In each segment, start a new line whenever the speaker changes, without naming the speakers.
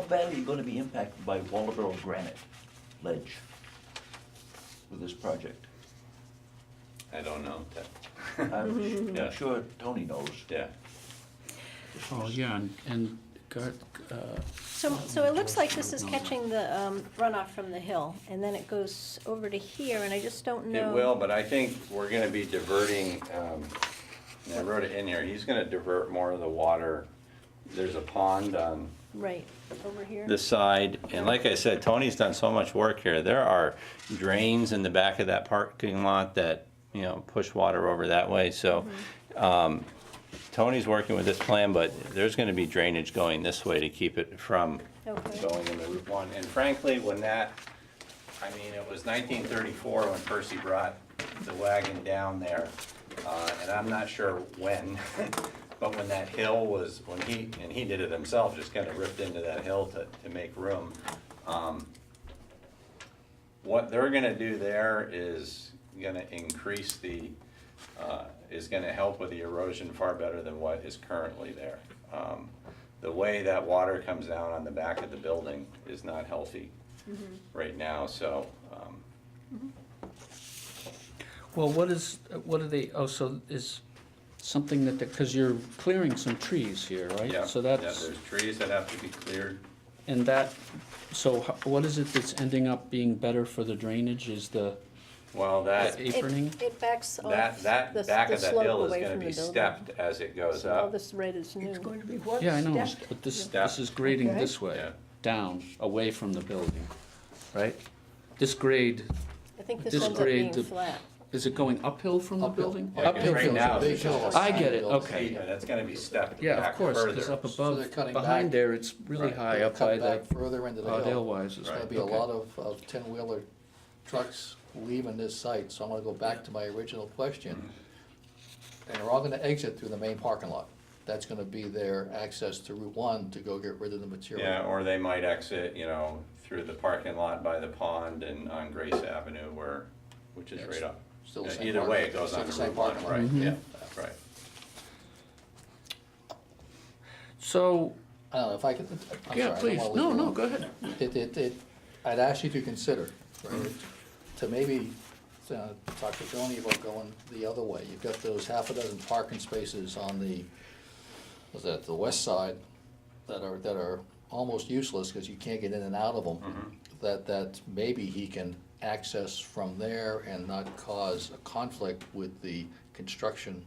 badly gonna be impacted by Waldeboro granite ledge with this project?
I don't know, that,
I'm
Yeah.
s- sure Tony knows.
yeah.
Oh, yeah, and, and, guard- uh,
So, so it looks like this is catching the um, runoff from the hill, and then it goes over to here, and I just don't know.
It will, but I think we're gonna be diverting, um, and I wrote it in here, he's gonna divert more of the water. There's a pond on
Right, over here.
this side, and like I said, Tony's done so much work here, there are drains in the back of that parking lot that, you know, push water over that way, so, um, Tony's working with this plan, but there's gonna be drainage going this way to keep it from
Okay.
going into Route One, and frankly, when that, I mean, it was nineteen thirty-four when Percy brought the wagon down there, uh, and I'm not sure when, but when that hill was, when he, and he did it himself, just kinda ripped into that hill to, to make room. um, What they're gonna do there is gonna increase the, uh, is gonna help with the erosion far better than what is currently there. Um, The way that water comes down on the back of the building is not healthy
Mm-hmm.
right now, so, um,
well, what is, what are they, oh, so is something that, because you're clearing some trees here, right?
yeah.
So
yeah,
that's,
There's trees that have to be cleared.
and that, so ho- what is it that's ending up being better for the drainage is the
Well, that,
That's- Apron?
It- It backs
that,
off
that
Oh, the
back
the
of that hill
slope
is
away
gonna
from the
be
building.
stepped as it goes
So all
up.
this red is
It's
new.
going to be what?
Yeah, I know,
Step?
but this,
Yeah.
this is grading this way,
Yeah.
down, away from the building, right? This grade,
I think this
This
ends up
grade,
being
the-
flat.
is it going uphill from the
Uphill.
building?
Yeah, 'cause right
from the
now-
building.
They show us.
I get it, okay.
Yeah, that's gonna be stepped
Yeah,
back
of course,
further.
because up
So they're
above,
cutting
behind
back.
there, it's really
Right.
high up by
Cut back
the,
Further into the
uh,
hill.
Dalewises.
There's gonna
Right.
be a
Okay.
lot of, of ten-wheeler trucks leaving this site, so I'm gonna go back to my original question. And they're all gonna exit through the main parking lot. That's gonna be their access to Route One to go get rid of the material.
Yeah, or they might exit, you know, through the parking lot by the pond and on Grace Avenue where, which is right up.
Still the same
Either way, it
parking-
goes
still
on
the
the
same
Route One,
parking lot.
right, yeah, right.
So,
I don't know, if I could, I'm sorry. I
yeah,
don't
please,
wanna leave
no,
you
no,
alone.
go ahead.
it, it, it, I'd ask you to consider, right, to maybe uh, talk to Tony about going the other way. You've got those half a dozen parking spaces on the, was that the west side, that are, that are almost useless because you can't get in and out of them. That, that maybe he can access from there and not cause a conflict with the construction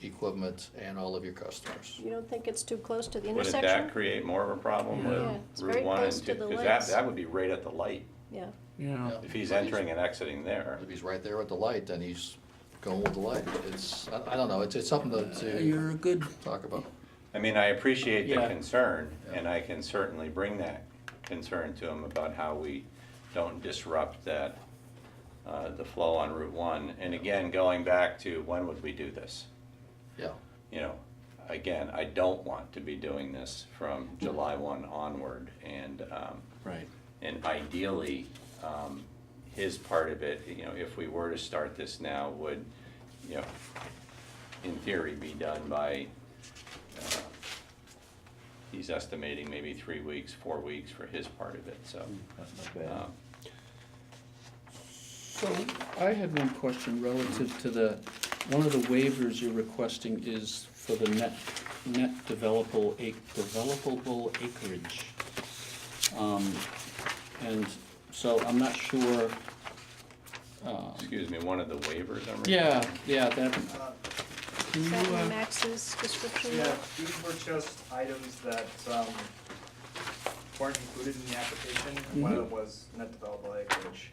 equipment and all of your customers.
You don't think it's too close to the
Wouldn't
intersection?
that create more of a problem
Yeah,
with
it's
Route
very
One
close
and
to
two?
the
Because that,
lights.
that would be right at the light,
Yeah.
Yeah,
if he's entering and exiting there.
If he's right there at the light, then he's going with the light. It's, I, I don't know, it's, it's something to,
you're
to
a good,
talk about.
I mean, I appreciate the
Yeah.
concern, and I can certainly bring that concern to him about how we don't disrupt that, uh, the flow on Route One. And again, going back to when would we do this?
Yeah,
you know, again, I don't want to be doing this from July one onward, and, um,
right.
and ideally, um, his part of it, you know, if we were to start this now, would, you know, in theory, be done by, uh, he's estimating maybe three weeks, four weeks for his part of it, so,
Mm, That's not bad.
um,
So I had one question relative to the, one of the waivers you're requesting is for the net, net developable, ac- developable acreage. Um, And so I'm not sure, uh,
excuse me, one of the waivers I'm reading.
yeah, yeah, that,
Um,
can
Is
you,
that in
uh,
Max's description?
Yeah, these were just items that um, weren't included in the application, and
Mm-hmm.
one of them was net developable acreage.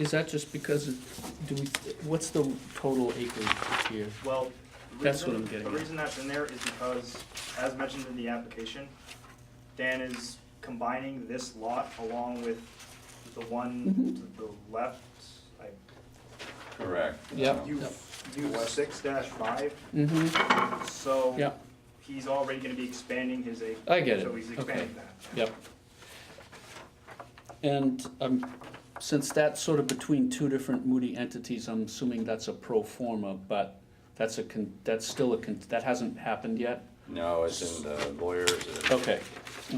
is that just because, it- do we, what's the total acreage here?
Well, the
That's what
reason-
I'm getting
The
at.
reason that's in there is because, as mentioned in the application, Dan is combining this lot along with the
Mm-hmm.
one to the left. I-
Correct. Um,
Yep.
You, you six dash five,
Mm-hmm.
so.
Yeah.
He's already gonna be expanding his acreage.
I get
So
it.
he's
Okay.
expanding that.
Yep. And um, since that's sort of between two different Moody entities, I'm assuming that's a pro forma, but that's a, con- that's still a, con- that hasn't happened yet?
No, it's in the lawyers. and-
Okay.